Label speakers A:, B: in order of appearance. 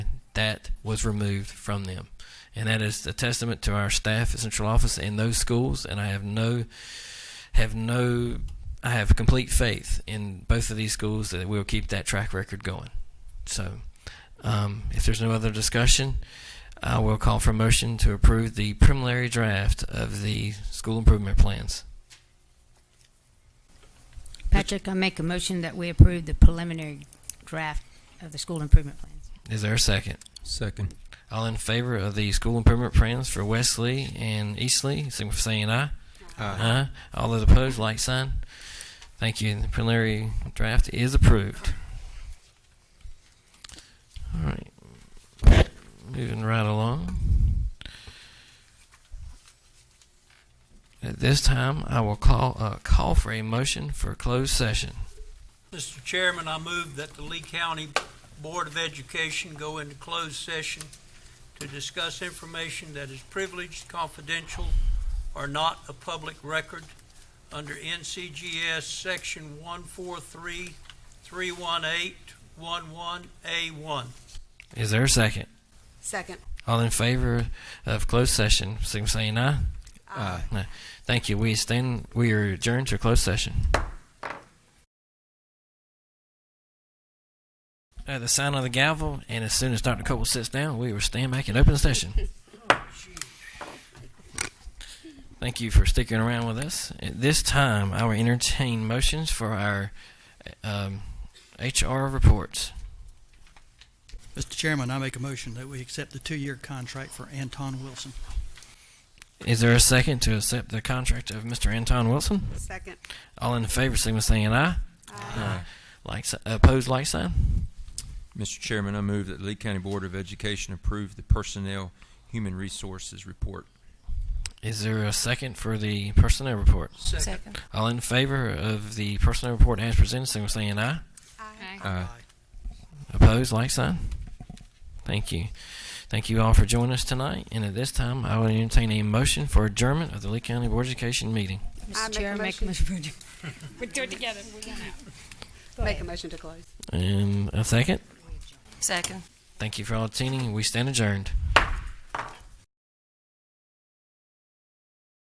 A: that was removed from them. And that is a testament to our staff at Central Office in those schools. And I have no, have no, I have complete faith in both of these schools that we'll keep that track record going. So, um, if there's no other discussion, I will call for a motion to approve the preliminary draft of the school improvement plans.
B: Patrick, I make a motion that we approve the preliminary draft of the school improvement plans.
A: Is there a second?
C: Second.
A: All in favor of the school improvement plans for Wesley and Eastley, signify by saying aye. Aye. All those opposed, like sign. Thank you. The preliminary draft is approved. All right. Moving right along. At this time, I will call uh, call for a motion for closed session.
D: Mr. Chairman, I move that the Lee County Board of Education go into closed session to discuss information that is privileged, confidential, or not a public record under NCGS Section 143-318-11A1.
A: Is there a second?
E: Second.
A: All in favor of closed session, signify by saying aye.
C: Aye.
A: No. Thank you. We stand. We are adjourned to a closed session. At the sound of the gavel, and as soon as Dr. Cole sits down, we will stand back in open session. Thank you for sticking around with us. At this time, I will entertain motions for our um, HR reports.
F: Mr. Chairman, I make a motion that we accept the two-year contract for Anton Wilson.
A: Is there a second to accept the contract of Mr. Anton Wilson?
E: Second.
A: All in favor, signal saying aye. Aye. Like, si- opposed, like sign.
C: Mr. Chairman, I move that the Lee County Board of Education approve the Personnel Human Resources Report.
A: Is there a second for the personnel report?
D: Second.
A: All in favor of the personnel report as presented, signal by saying aye.
C: Aye.
A: Opposed, like sign. Thank you. Thank you all for joining us tonight. And at this time, I will entertain a motion for adjournment of the Lee County Board of Education meeting.
E: I
B: Mr.
E: make a
B: Chair, I make a
E: motion.
B: motion for adjourn-
G: We're doing it together. We're going out.
E: Make a motion to close.
A: And a second.
G: Second.
A: Thank you for all attending. We stand adjourned.